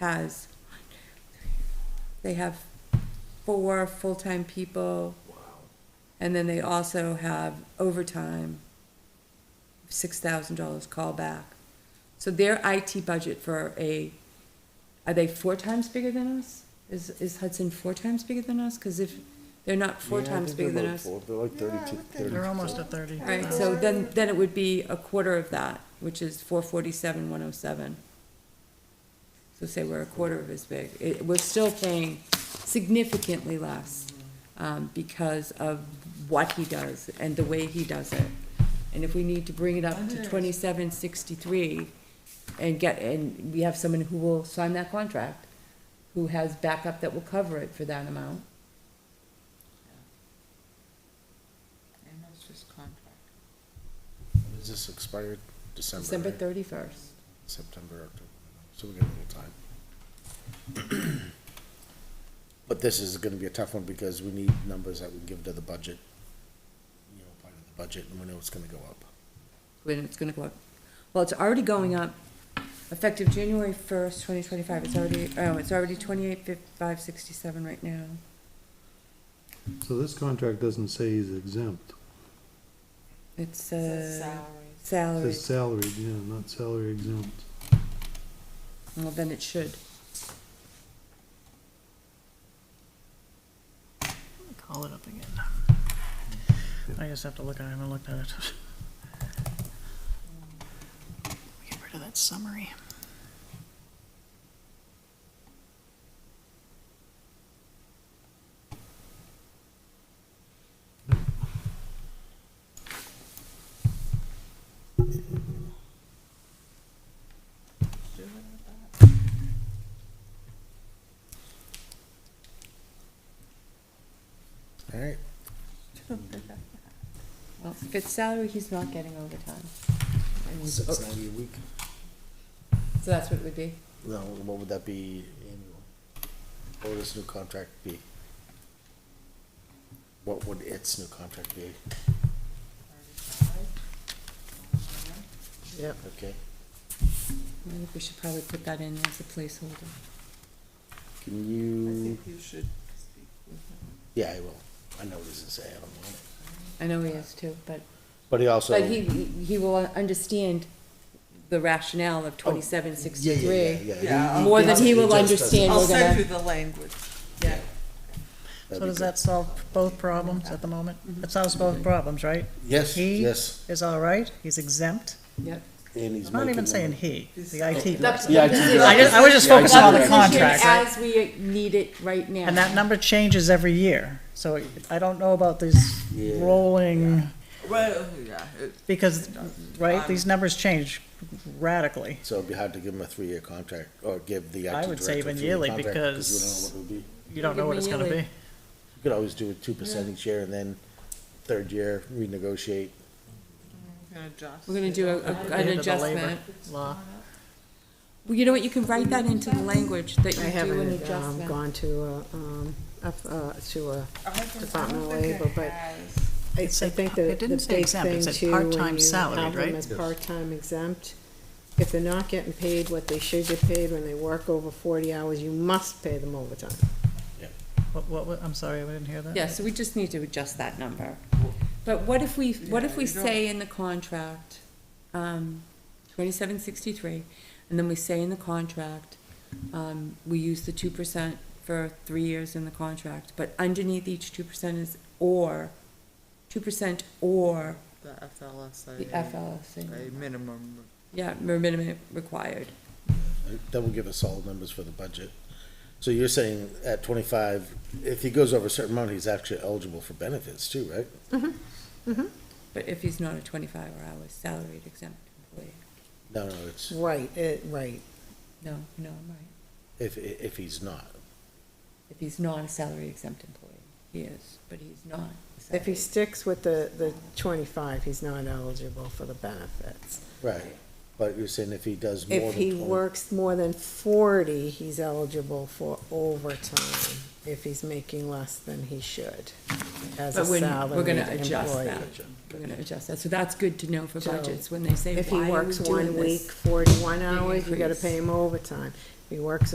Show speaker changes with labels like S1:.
S1: has, they have four full-time people. And then they also have overtime, six thousand dollars callback. So their IT budget for a, are they four times bigger than us? Is, is Hudson four times bigger than us? Cause if they're not four
S2: Yeah, I
S1: times
S2: think they're
S1: bigger than
S2: about
S1: us.
S2: four. They're like
S3: Yeah, I
S2: thirty-two,
S3: would think-
S2: thirty.
S4: They're almost at thirty. Uh,
S1: Right, so then, then it would be a quarter of that, which is four forty-seven, one oh seven. So say we're a quarter of as big, it, we're still paying significantly less, um, because of what he does and the way he does it. And if we need to bring it up to twenty-seven sixty-three and get, and we have someone who will sign that contract, who has backup that will cover it for that amount,
S3: And that's just contract.
S5: Is this expired December?
S1: December
S5: right?
S1: thirty-first.
S5: September, October, so we got a little time. But this is gonna be a tough one because we need numbers that we give to the budget. You know, part of the budget, and we know it's gonna go up.
S1: when it's gonna go up. Well, it's already going up, effective January first, twenty twenty-five, it's already, oh, it's already twenty-eight, five, sixty-seven right now.
S2: So this contract doesn't say he's exempt.
S1: It's,
S3: Says
S1: uh,
S3: Salaries.
S2: It
S1: salary,
S2: says salary, yeah, not salary exempt.
S1: well, then it should.
S4: Call it up again. I just have to look, I haven't looked at it. Get rid of that summary.
S5: Alright,
S1: Well, if it's salary, he's not getting overtime. And he's-
S5: six
S1: So
S5: ninety a week,
S1: that's what it would be.
S5: no, what would that be annual? What would this new contract be? What would its new contract be?
S4: Yep.
S5: Okay,
S1: I think we should probably put that in as a placeholder.
S5: can
S3: I
S5: you,
S3: think you should speak with him.
S5: yeah, I will, I know what this is saying, I don't want it.
S1: I know he is too, but,
S5: But he also.
S1: but he, he will understand the rationale of twenty-seven
S5: Yeah, yeah, yeah,
S1: sixty-three.
S5: yeah.
S3: Yeah,
S1: More than he will
S5: just doesn't-
S1: understand,
S3: I'll
S1: we're
S3: send
S1: gonna,
S3: you the language. Yeah.
S4: So
S5: That'd be
S4: does
S5: good. Mm-hmm.
S4: that solve both problems at the moment? It solves both problems, right?
S5: Yes,
S4: he-
S5: yes.
S4: Is all right, he's exempt.
S1: yep.
S5: And he's
S4: I'm not even
S5: making
S4: saying
S5: them-
S4: he, the IT.
S1: That's-
S4: person.
S5: Yeah, I
S1: that's
S5: do
S1: it.
S5: that.
S4: I just, I was just
S5: Yeah, I
S4: focused on
S5: do
S4: the
S5: that.
S4: contract, right?
S1: As we need it right now.
S4: And that number changes every year, so I don't know about these
S5: Yeah.
S4: rolling,
S3: Well, oh, yeah, it-
S4: because, right,
S3: Um,
S4: these numbers change radically.
S5: So it'd be hard to give him a three-year contract or give the
S4: I
S5: IT director a
S4: would say
S5: three-year
S4: even yearly,
S5: contract we don't know
S4: because-
S5: what it would be.
S4: You don't know what it's gonna be.
S5: You could always do a two percent each year and then third year renegotiate.
S3: I'm gonna adjust.
S1: We're gonna do a, a-
S4: End
S1: an
S4: of the labor
S1: adjustment.
S4: Law.
S1: Well, you know what, you can write that into the language, that
S6: I
S1: you do an
S6: haven't um,
S1: adjustment.
S6: gone to, a, um, up, uh, to a,
S3: I don't think- I don't
S6: Department of
S3: think it
S6: Labor, but-
S3: has.
S6: I I
S4: It said-
S6: think the,
S4: it didn't
S6: the
S4: say
S6: big
S4: exempt, it
S6: thing
S4: said
S6: too,
S4: part-time
S6: when you
S4: salaried,
S6: have
S4: right?
S6: them as
S2: Yes.
S6: part-time exempt, if they're not getting paid what they should get paid when they work over forty hours, you must pay them overtime.
S4: What, what, what- I'm sorry, I didn't hear that.
S1: Yeah, so we just need to adjust that number. But what if we, what if we
S3: Yeah, you don't-
S1: say in the contract, um, twenty-seven sixty-three, and then we say in the contract, um, we use the two percent for three years in the contract, but underneath each two percent is or, two percent or
S3: The FLSA.
S1: the FLSA.
S3: A minimum.
S1: Yeah, minimum required.
S5: That will give us solid numbers for the budget. So you're saying at twenty-five, if he goes over a certain amount, he's actually eligible for benefits too, right?
S1: But if he's not a twenty-five hour salaried exempt employee,
S5: No, no, it's
S6: Right, it, right.
S1: no, no, I'm right.
S5: if, if he's not.
S1: If he's not a salary exempt employee, he is, but he's not. a
S6: If he
S1: salaried-
S6: sticks with the, the twenty-five, he's not eligible for the benefits.
S5: Right, but you're saying if he does more than
S6: If he
S5: 20
S6: works more than forty, he's eligible for overtime, if he's making less than he should, as a
S1: But when- we're
S6: salaried
S1: gonna adjust
S6: employee.
S1: that. We're gonna adjust that, so that's good to know for
S6: So,
S1: budgets, when they say,
S6: If he
S1: why are we
S6: works
S1: doing
S6: one week,
S1: this?
S6: forty-one
S1: you
S6: hours, you gotta
S1: increase?
S6: pay him overtime. If he works